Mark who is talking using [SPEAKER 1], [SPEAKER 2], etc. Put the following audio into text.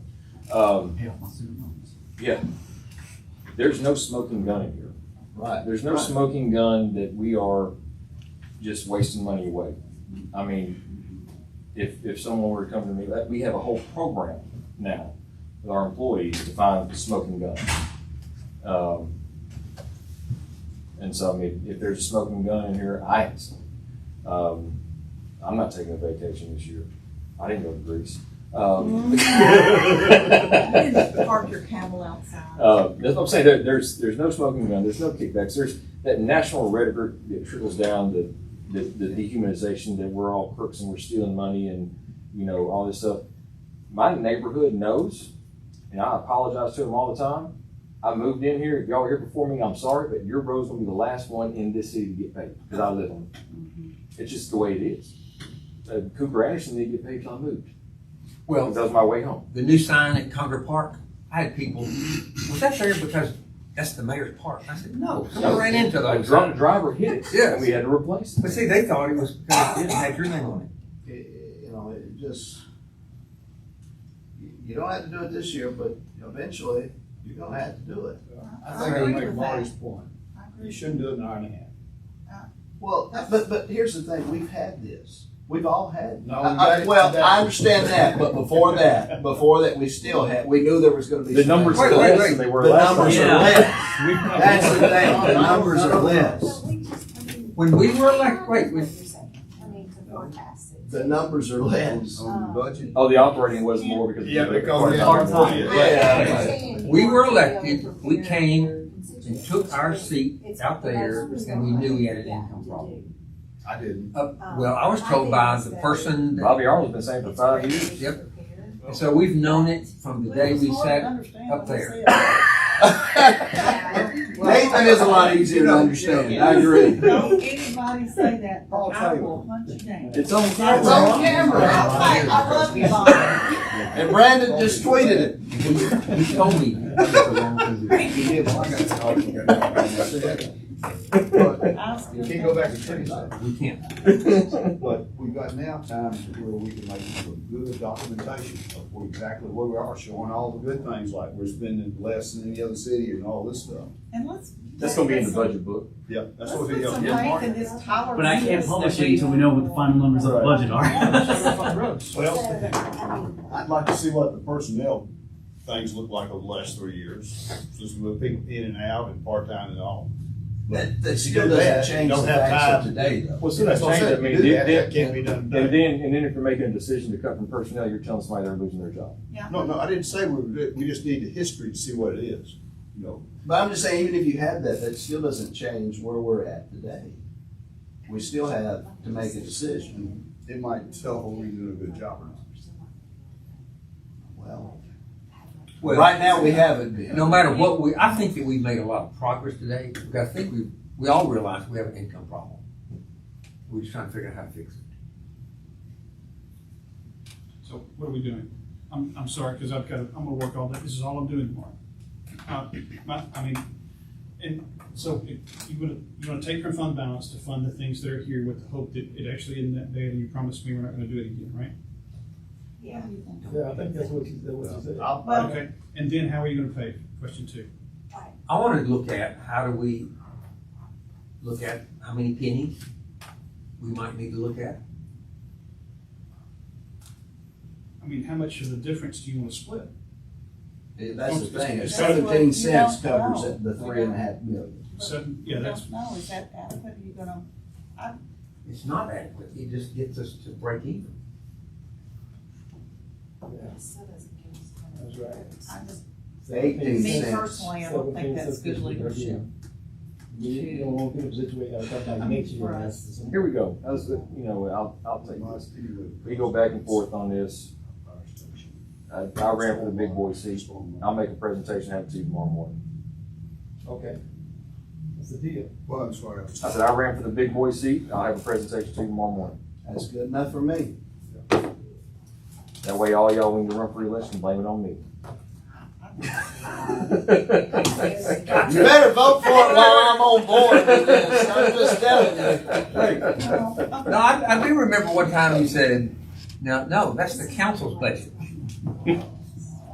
[SPEAKER 1] Um,
[SPEAKER 2] pay off my student loans.
[SPEAKER 1] yeah. There's no smoking gun in here.
[SPEAKER 2] Right.
[SPEAKER 1] There's no smoking gun that we are just wasting money away. I mean, if, if someone were to come to me, that, we have a whole program now with our employees to find smoking guns. Um, and so, I mean, if there's a smoking gun in here, I have some. Um, I'm not taking a vacation this year. I didn't go to Greece.
[SPEAKER 3] You
[SPEAKER 1] Um,
[SPEAKER 3] can park your camel outside.
[SPEAKER 1] Uh, that's what I'm saying. There, there's there's no smoking gun. There's no kickbacks. There's that national rhetoric that trickles down the, the the dehumanization that we're all crooks and we're stealing money and you know all this stuff. My neighborhood knows, and I apologize to them all the time. I moved in here. If y'all were here before me, I'm sorry, but your road's gonna be the last one in this city to get paid because I live on it. It's just the way it is. Uh, Cooper Anderson didn't get paid till I moved. That
[SPEAKER 4] Well,
[SPEAKER 1] was my way home.
[SPEAKER 4] the new sign at Conger Park, I had people, was that there because that's the mayor's park? I said, no, someone ran into
[SPEAKER 1] A
[SPEAKER 4] those.
[SPEAKER 1] drunk driver hit it,
[SPEAKER 4] Yes.
[SPEAKER 1] and we had to replace it.
[SPEAKER 4] But see, they thought it was because it didn't have your name on it.
[SPEAKER 2] It- it- You know, it just, you you don't have to do it this year, but eventually, you're gonna have to do it.
[SPEAKER 3] I
[SPEAKER 5] I think I
[SPEAKER 3] agree
[SPEAKER 5] make
[SPEAKER 3] with that.
[SPEAKER 5] Marty's point.
[SPEAKER 3] I agree.
[SPEAKER 5] You shouldn't do it in an hour and a half.
[SPEAKER 2] Well, but, but here's the thing, we've had this, we've all had.
[SPEAKER 5] No, we've had
[SPEAKER 2] I- I-
[SPEAKER 5] it
[SPEAKER 2] Well,
[SPEAKER 5] today.
[SPEAKER 2] I understand that, but before that, before that, we still had, we knew there was gonna be.
[SPEAKER 1] The
[SPEAKER 2] some-
[SPEAKER 1] numbers
[SPEAKER 4] Wait,
[SPEAKER 1] are
[SPEAKER 4] wait,
[SPEAKER 1] less
[SPEAKER 4] wait.
[SPEAKER 1] than they were
[SPEAKER 2] The
[SPEAKER 1] last
[SPEAKER 2] numbers
[SPEAKER 1] time.
[SPEAKER 2] are less, that's the thing, the numbers are less,
[SPEAKER 6] But we just, I mean.
[SPEAKER 4] When we were elect, wait,
[SPEAKER 6] You're
[SPEAKER 4] when,
[SPEAKER 6] saying, I mean, to forecast it.
[SPEAKER 2] the numbers are less.
[SPEAKER 6] On the
[SPEAKER 5] budget.
[SPEAKER 1] Oh, the operating was more because.
[SPEAKER 5] Yeah, because.
[SPEAKER 1] Part time.
[SPEAKER 2] Yeah.
[SPEAKER 4] we were elected, we came and took our seat out there and we knew we had an income problem.
[SPEAKER 5] I didn't.
[SPEAKER 4] Uh, well, I was told by the person that,
[SPEAKER 1] Bobby Arnold's been saying for five years.
[SPEAKER 4] Yep. and so we've known it from the day we sat. up there.
[SPEAKER 2] Nathan is a lot easier to understand, I agree.
[SPEAKER 3] Don't anybody say that,
[SPEAKER 5] I'll
[SPEAKER 3] or
[SPEAKER 5] tell
[SPEAKER 3] I
[SPEAKER 5] you.
[SPEAKER 3] will punch you down.
[SPEAKER 1] It's on
[SPEAKER 2] It's
[SPEAKER 1] camera.
[SPEAKER 2] on camera.
[SPEAKER 3] I was like, I love you, Bob.
[SPEAKER 2] And Brandon just tweeted it.
[SPEAKER 4] He he told me.
[SPEAKER 2] He did.
[SPEAKER 5] But
[SPEAKER 3] I was
[SPEAKER 5] You
[SPEAKER 3] good.
[SPEAKER 5] can't go back and change that.
[SPEAKER 4] We can't.
[SPEAKER 5] But we've got now times where we can make some good documentation of where exactly where we are, showing all the good things, like we're spending less than any other city and all this stuff.
[SPEAKER 3] And let's.
[SPEAKER 1] That's gonna be in the budget book.
[SPEAKER 5] Yeah, that's
[SPEAKER 3] Let's
[SPEAKER 5] what we
[SPEAKER 3] put
[SPEAKER 5] got.
[SPEAKER 3] some faith in this tolerance.
[SPEAKER 7] But I can't publish it until we know what the final numbers of the budget are.
[SPEAKER 5] Well,
[SPEAKER 6] I mean,
[SPEAKER 5] I'd like to see what the personnel things look like over the last three years, just with people in and out and part-time and all.
[SPEAKER 2] That, that
[SPEAKER 5] You
[SPEAKER 2] still
[SPEAKER 5] do that,
[SPEAKER 2] doesn't change the
[SPEAKER 5] don't have
[SPEAKER 2] facts of
[SPEAKER 5] time.
[SPEAKER 2] today, though.
[SPEAKER 1] Well, so that's changed. I mean,
[SPEAKER 5] Do that, that
[SPEAKER 1] then,
[SPEAKER 5] can't be done
[SPEAKER 1] and
[SPEAKER 5] today.
[SPEAKER 1] then, and then if you're making a decision to cut from personnel, you're telling somebody they're losing their job.
[SPEAKER 5] No, no, I didn't say we, were doing- we just need the history to see what it is, you know.
[SPEAKER 2] But I'm just saying, even if you had that, that still doesn't change where we're at today. We still have to make a decision.
[SPEAKER 5] It might tell whether we're doing a good job or not.
[SPEAKER 2] Well,
[SPEAKER 4] Well,
[SPEAKER 2] right now, we haven't been.
[SPEAKER 4] no matter what, we, I think that we've made a lot of progress today, because I think we, we all realize we have an income problem. We're just trying to figure out how to fix it.
[SPEAKER 8] So what are we doing? I'm, I'm sorry, because I've got, to- I'm gonna work all day, this is all I'm doing tomorrow. Uh, my- I mean, and so if you wanna, you wanna take your fund balance to fund the things that are here with the hope that it actually isn't that bad, and you promised me we're not gonna do it again, right?
[SPEAKER 3] Yeah.
[SPEAKER 5] Yeah, I think that's what you, that's what you said.
[SPEAKER 3] Well,
[SPEAKER 8] Okay, and then how are you gonna pay? Question two.
[SPEAKER 4] I wanted to look at, how do we look at how many pennies we might need to look at?
[SPEAKER 8] I mean, how much of the difference do you wanna split?
[SPEAKER 2] That's the thing, it's
[SPEAKER 3] That's what you
[SPEAKER 2] seventeen cents
[SPEAKER 3] don't
[SPEAKER 2] covers
[SPEAKER 3] know.
[SPEAKER 2] it, the three and a half million.
[SPEAKER 8] Seven,
[SPEAKER 3] I
[SPEAKER 8] yeah, that's,
[SPEAKER 3] don't know, is that adequate, are you gonna,
[SPEAKER 4] It's not adequate, it just gets us to break even.
[SPEAKER 6] it still doesn't give us kind
[SPEAKER 5] That's
[SPEAKER 6] of-
[SPEAKER 5] right.
[SPEAKER 3] I just,
[SPEAKER 2] Eighteen
[SPEAKER 3] me
[SPEAKER 2] cents.
[SPEAKER 3] personally, I don't think that's good leadership.
[SPEAKER 5] You don't want people situated,
[SPEAKER 3] like next year, that's
[SPEAKER 1] Here we go. That's, the- you know, I'll, I'll take this. We go back and forth on this. I, I ran for the big boy seat. I'll make a presentation, have it to you tomorrow morning.
[SPEAKER 5] Okay. That's the deal. Well, I'm sorry.
[SPEAKER 1] I said, I ran for the big boy seat. I'll have a presentation to you tomorrow morning.
[SPEAKER 2] That's good enough for me.
[SPEAKER 1] That way all y'all, when you run for election, blame it on me.
[SPEAKER 2] You better vote for it while I'm on board with this, I'm just telling you.
[SPEAKER 4] No, I, I do remember one time you said, no, no, that's the council's budget.